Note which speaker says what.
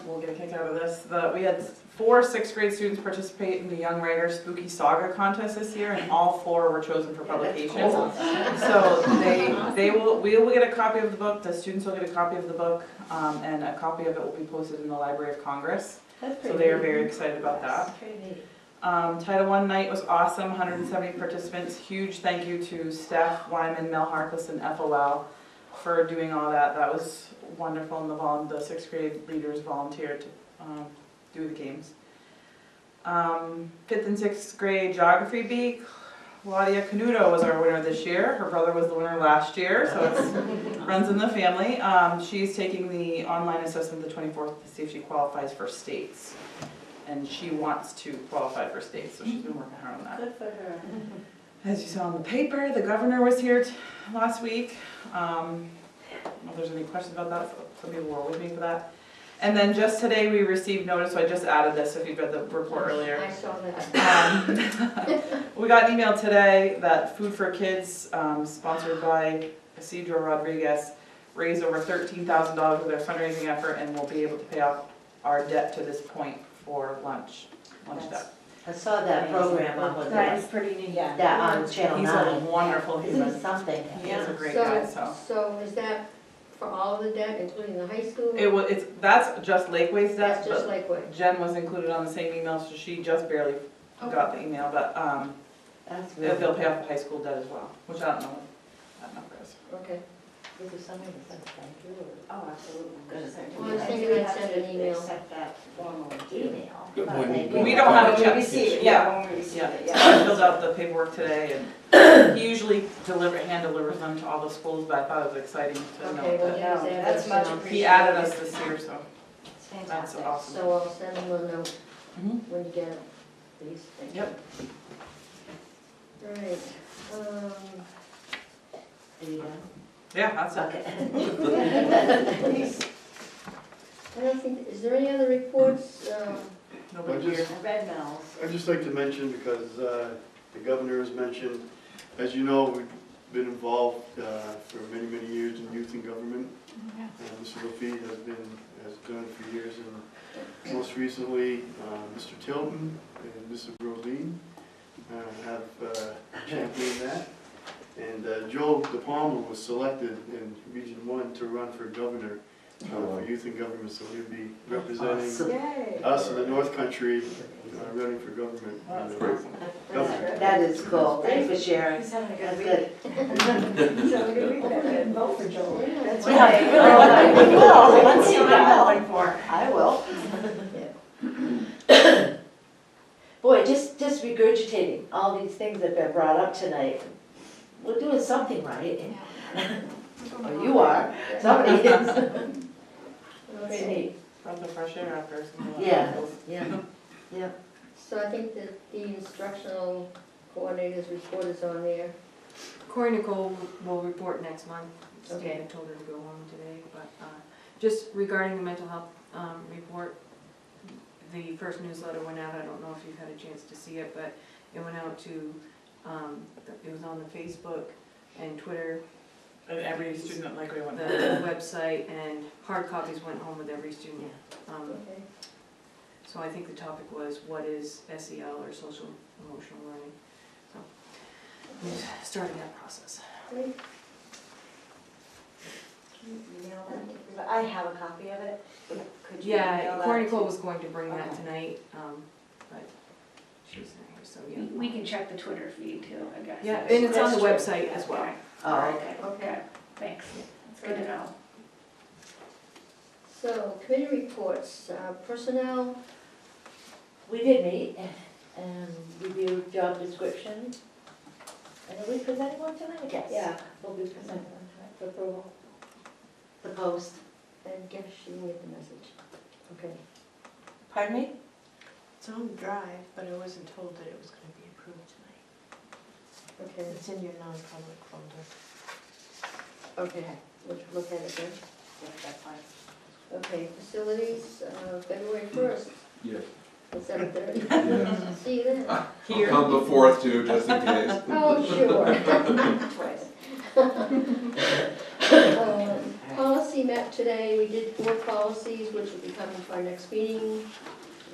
Speaker 1: will get a kick out of this. The, we had four sixth grade students participate in the Young Writer Spooky Saga contest this year, and all four were chosen for publication. So they, they will, we will get a copy of the book, the students will get a copy of the book, um, and a copy of it will be posted in the Library of Congress. So they are very excited about that. Um, Title I night was awesome, 170 participants. Huge thank you to Steph Wyman, Mel Harkless, and FOL for doing all that. That was wonderful, and the vol, the sixth grade leaders volunteered to um, do the games. Um, Fifth and sixth grade geography bee, Claudia Canuto was our winner this year. Her brother was the winner last year, so it's, runs in the family. Um, She's taking the online assessment the 24th to see if she qualifies for states. And she wants to qualify for states, so she's been working hard on that.
Speaker 2: Good for her.
Speaker 1: As you saw in the paper, the governor was here t- last week. Um, If there's any questions about that, some people were with me for that. And then just today, we received notice, so I just added this if you read the report earlier.
Speaker 2: I saw that.
Speaker 1: Um, We got an email today that Food for Kids, um, sponsored by Isidro Rodriguez, raised over thirteen thousand dollars with their fundraising effort and will be able to pay off our debt to this point for lunch, lunch debt.
Speaker 2: I saw that program up on
Speaker 3: That
Speaker 2: the,
Speaker 3: is pretty neat.
Speaker 2: that on Channel
Speaker 1: He's a
Speaker 2: Nine.
Speaker 1: wonderful human,
Speaker 2: It's something.
Speaker 1: he's a great
Speaker 4: So-
Speaker 1: guy, so.
Speaker 4: So is that for all of the debt, including the high school?
Speaker 1: It was, it's, that's just Lakeway's debt,
Speaker 4: That's just
Speaker 1: but
Speaker 4: like what?
Speaker 1: Jen was included on the same email, so she just barely got the email, but, um,
Speaker 2: That's really.
Speaker 1: they'll they'll pay off the high school debt as well, which I don't know what that number is.
Speaker 4: Okay.
Speaker 2: This is something that's like, thank you.
Speaker 3: Oh, absolutely.
Speaker 4: Well, I was thinking I'd send an email.
Speaker 3: Accept that formal deal.
Speaker 2: Email.
Speaker 5: Good
Speaker 2: but
Speaker 5: point.
Speaker 2: they-
Speaker 1: We don't have a
Speaker 3: When
Speaker 1: check.
Speaker 3: we receive it,
Speaker 1: Yeah.
Speaker 3: yeah, when we receive
Speaker 1: Yeah,
Speaker 3: it,
Speaker 1: so
Speaker 3: yeah.
Speaker 1: I filled out the paperwork today and he usually deliver, hand delivers them to all the schools, but I thought it was exciting to
Speaker 4: Okay, well,
Speaker 1: know
Speaker 4: yeah,
Speaker 3: No, that's much
Speaker 1: that
Speaker 3: appreciated.
Speaker 1: he added us this year, so
Speaker 3: It's
Speaker 1: that's
Speaker 3: fantastic.
Speaker 1: awesome.
Speaker 4: So I'll send them a note
Speaker 1: Mhm.
Speaker 4: when you get it, please. Thank you.
Speaker 1: Yep,
Speaker 4: Right. um,
Speaker 2: Yeah.
Speaker 1: yeah, that's it.
Speaker 2: Okay.
Speaker 4: I don't think, is there any other reports? Um,
Speaker 1: Nobody
Speaker 5: I just-
Speaker 1: here.
Speaker 3: Red Mills.
Speaker 5: I'd just like to mention, because uh, the governor has mentioned, as you know, we've been involved uh, for many, many years in youth and government. And Mr. Lefebvre has been, has done it for years, and most recently, uh, Mr. Tilton and Mr. Brodeen uh, have uh, championed that. And uh, Joe DePalma was selected in Region One to run for governor uh,
Speaker 3: Oh,
Speaker 5: for youth and government, so he'll be representing
Speaker 2: Awesome.
Speaker 4: Yay.
Speaker 5: us in the North Country, uh, running for government.
Speaker 1: Oh, that's awesome.
Speaker 5: Governor.
Speaker 2: That is cool. Thank you for sharing.
Speaker 3: He's having a
Speaker 2: That's
Speaker 3: good
Speaker 2: good.
Speaker 3: week. He's having a good week. I couldn't vote for Joel.
Speaker 4: Yeah.
Speaker 2: right. Really?
Speaker 3: Well,
Speaker 2: Well, let's
Speaker 3: Let's
Speaker 2: see
Speaker 3: see what
Speaker 2: now.
Speaker 3: I'm voting for.
Speaker 2: I will. Boy, just, just regurgitating all these things that have been brought up tonight. We're doing something right. Or Oh, you are, somebody is. It's
Speaker 4: Okay.
Speaker 2: neat.
Speaker 1: Breath of fresh air after some of that.
Speaker 2: Yeah, yeah.
Speaker 4: So I think that the instructional coordinator's report is on there.
Speaker 6: Corey Nicole will report next month.
Speaker 4: Okay.
Speaker 6: Stephen told her to go home today, but uh, just regarding the mental health um, report, the first newsletter went out, I don't know if you've had a chance to see it, but it went out to, um, it was on the Facebook and Twitter,
Speaker 1: And every student at Lakeway
Speaker 6: the
Speaker 1: went.
Speaker 6: website, and hard copies went home with every student. Um,
Speaker 4: Okay.
Speaker 6: So I think the topic was, what is SEL or social emotional learning? So, we've started that process.
Speaker 4: Great.
Speaker 3: Email that. I have a copy of it. Could you email
Speaker 6: Yeah,
Speaker 3: that
Speaker 6: Corey
Speaker 3: to-
Speaker 6: Cole was going to bring that
Speaker 3: Okay.
Speaker 6: tonight, um, but she's not here, so yeah.
Speaker 7: We can check the Twitter feed too, I guess.
Speaker 6: Yeah, and it's on the
Speaker 7: That's true.
Speaker 6: website as well.
Speaker 7: Okay.
Speaker 2: Oh, okay.
Speaker 4: Okay.
Speaker 7: Thanks. It's good to know.
Speaker 4: So committee reports, uh, personnel,
Speaker 2: We did meet and review job description. And are we presenting one tonight? Yes. Yeah, we'll be presenting one tonight for approval. The post.
Speaker 4: and guess she made the message. Okay.
Speaker 2: Pardon me?
Speaker 8: It's on the drive, but I wasn't told that it was gonna be approved tonight.
Speaker 4: Okay,
Speaker 8: It's in your non-public folder.
Speaker 4: okay, we'll look at it then.
Speaker 3: Yeah, that's fine.
Speaker 4: Okay, facilities, uh, February first,
Speaker 9: Yes.
Speaker 4: at seven thirty.
Speaker 9: Yes.
Speaker 4: See you then.
Speaker 9: I'll come the fourth too, just in case.
Speaker 4: Oh, sure.
Speaker 3: Twice.
Speaker 4: Um, Policy policy met today, we did four policies, which will be coming to our next meeting.